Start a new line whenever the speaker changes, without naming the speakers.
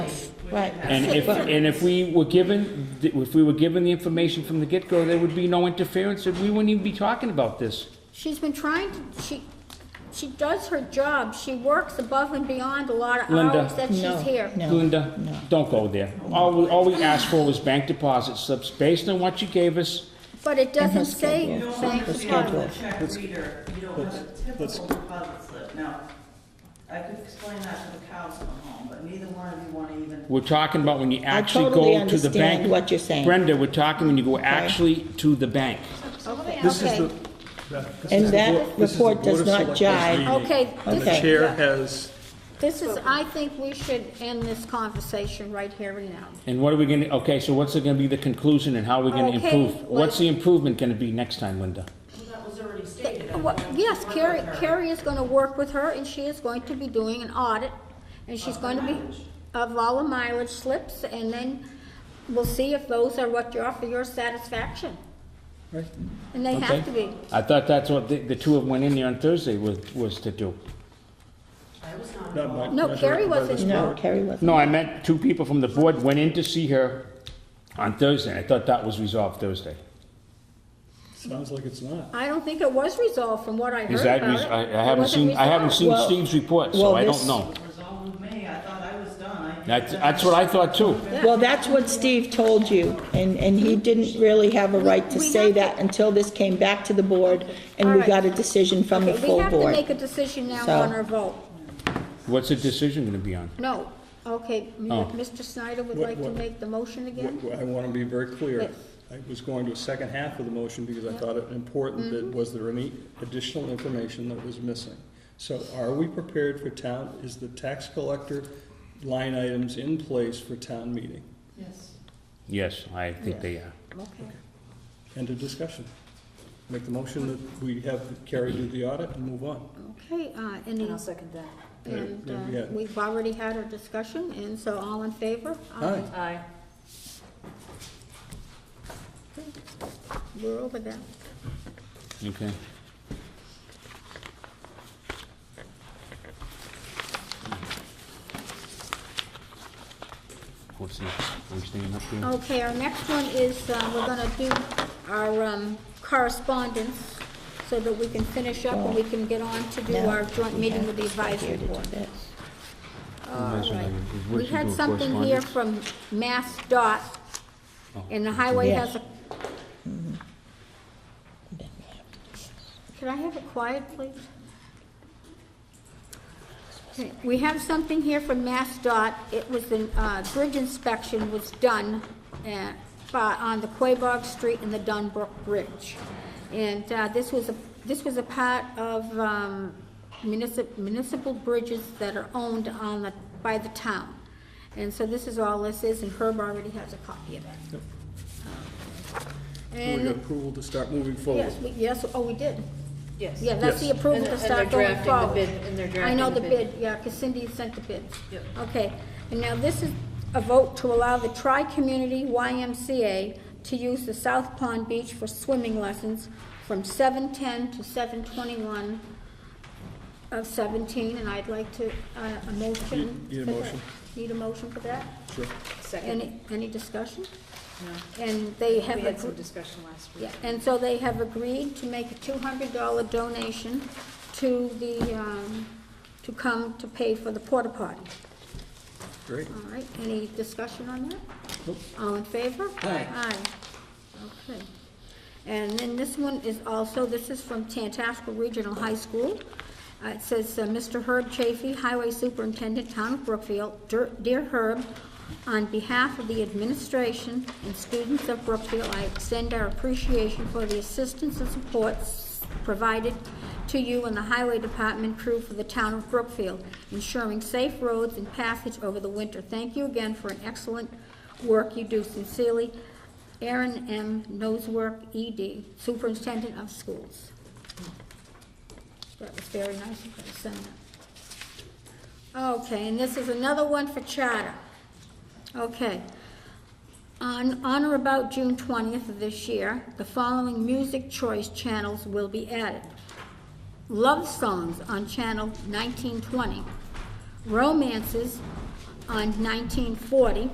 Right.
And if, and if we were given, if we were given the information from the get-go, there would be no interference, and we wouldn't even be talking about this.
She's been trying to, she, she does her job, she works above and beyond a lot of
Linda.
hours that
No,
she's here.
no.
Linda, don't go there. All, we- all we asked for was bank deposit slips based on what you gave us.
But it doesn't say
schedule.
bank
Her
deposit.
schedule.
check reader, you don't have a typical deposit slip. Now, I could explain that to the cows at home, but neither one of you want to even
We're talking about when you actually
totally
go to the bank.
understand what you're saying.
Brenda, we're talking when you go actually to the bank.
This is
Okay.
the. Beth, this
And
is the
that
board- this is the
report does
Board of
not
Selectmen's
jive.
meeting,
Okay,
And the
Okay.
this,
chair has,
this is, I think we should end this conversation right here and now.
And what are we gonna, okay, so what's it gonna be the conclusion and how are we gonna
Okay,
improve? What's
let's-
the improvement gonna be next time, Linda?
Well, Yes, Carrie, Carrie is gonna work with her, and she is going to be doing an audit, and she's going to be, of all the mileage slips, and then we'll see if those are what you're, for your satisfaction. And they
Okay?
have to be.
I thought that's what the, the two of them went in there on Thursday was, was to do.
not
No,
my. not
Carrie
directed by this
wasn't.
No, Kerry wasn't.
No, I meant two people from the board went in to see her on Thursday. I thought that was resolved Thursday.
Sounds like it's not.
I don't think it was resolved from what I heard
Is that,
about
res-
it.
I I
It
haven't
wasn't
seen, I haven't
resolved.
seen
Well-
Steve's report, so
well,
I don't
this-
know.
resolve with me. I thought I was done. I-
That's, that's what I thought too.
Well, that's what Steve told you, and, and he didn't really have a right to
We- we
say
have to-
that until this came back to the board, and
All
we
right.
got a decision from the
Okay, we
full
have to
board.
make a decision now
So-
on our vote.
What's the decision gonna be on?
No, okay,
Oh.
Mr. Snyder would
What-
like to
what-
make the motion
What-
again?
what I want to be very clear.
Yes.
I was going to a second half of the motion because I thought it important that,
Mm-hmm.
was there any additional information that was missing? So are we prepared for town, is the tax collector line items in place for town meeting?
Yes.
Yes, I think they are.
Okay.
End of discussion. Make the motion that we have Carrie do the audit and move on.
Okay, uh, any? And I'll second that. And,
Yeah,
uh,
yeah.
we've already had our discussion, and so all in favor?
Aye.
Aye.
We're over that.
Okay. What's this? Are we staying up here?
Okay, our next one is, uh, we're gonna do our, um, correspondence, so that we can finish up and we can get on to do
No,
our joint
we
meeting
have
with the
to go
advisory
here to do
board.
this.
All
Advisory
right.
board. Is what
We
you
had
do,
something here from Mass Dot,
Oh,
and the highway
Yes.
has a,
Then we have to do this.
Can I have it quiet, please? Okay, We have something here from MassDOT. It was an, uh, bridge inspection was done at, by- on the Quabog Street and the Dunbrook Bridge. And, uh, this was a, this was a part of, um, municipal, municipal bridges that are owned on the, by the town. And so this is all this is, and Herb already has a copy of that.
We
And
got approval to start moving forward.
Yes, we, yes, oh, we did.
Yes.
Yeah, that's the
Yes.
approval
And-
to
and
start
they're
going
drafting the
forward.
bid- and they're
I know
drafting
the
the bid.
bid, yeah, because Cindy sent the bids.
Yep.
Okay, and now this is a vote to allow the Tri-Community YMCA to use the South Pond Beach for swimming lessons from seven-ten to seven-twenty-one of seventeen, and I'd like to, uh, a motion.
Need- need a
for that.
motion.
Need a motion for that?
Sure.
Second,
Any, any discussion?
no.
And they have.
We had
appro-
some discussion last week.
yeah, and so they have agreed to make a two hundred dollar donation to the, um, to come to pay for the porta potty.
Great.
All right, any discussion on that?
Nope.
All in favor?
Aye.
Aye, okay. And then this one is also, this is from Tantasco Regional High School. Uh, It says, uh, "Mr. Herb Chafee, Highway Superintendent, Town of Brookfield, Dear- Dear Herb, on behalf of the administration and students of Brookfield, I extend our appreciation for the assistance and support s- provided to you and the Highway Department crew for the Town of Brookfield, ensuring safe roads and passage over the winter. Thank you again for an excellent work you do sincerely, Aaron M. Nosework, ED, Superintendent of Schools. That was very nice of you to send that. Okay, and this is another one for charter. Okay. On, on or about June twentieth of this year, the following music choice channels will be added. Love songs on channel nineteen twenty, romances on nineteen forty.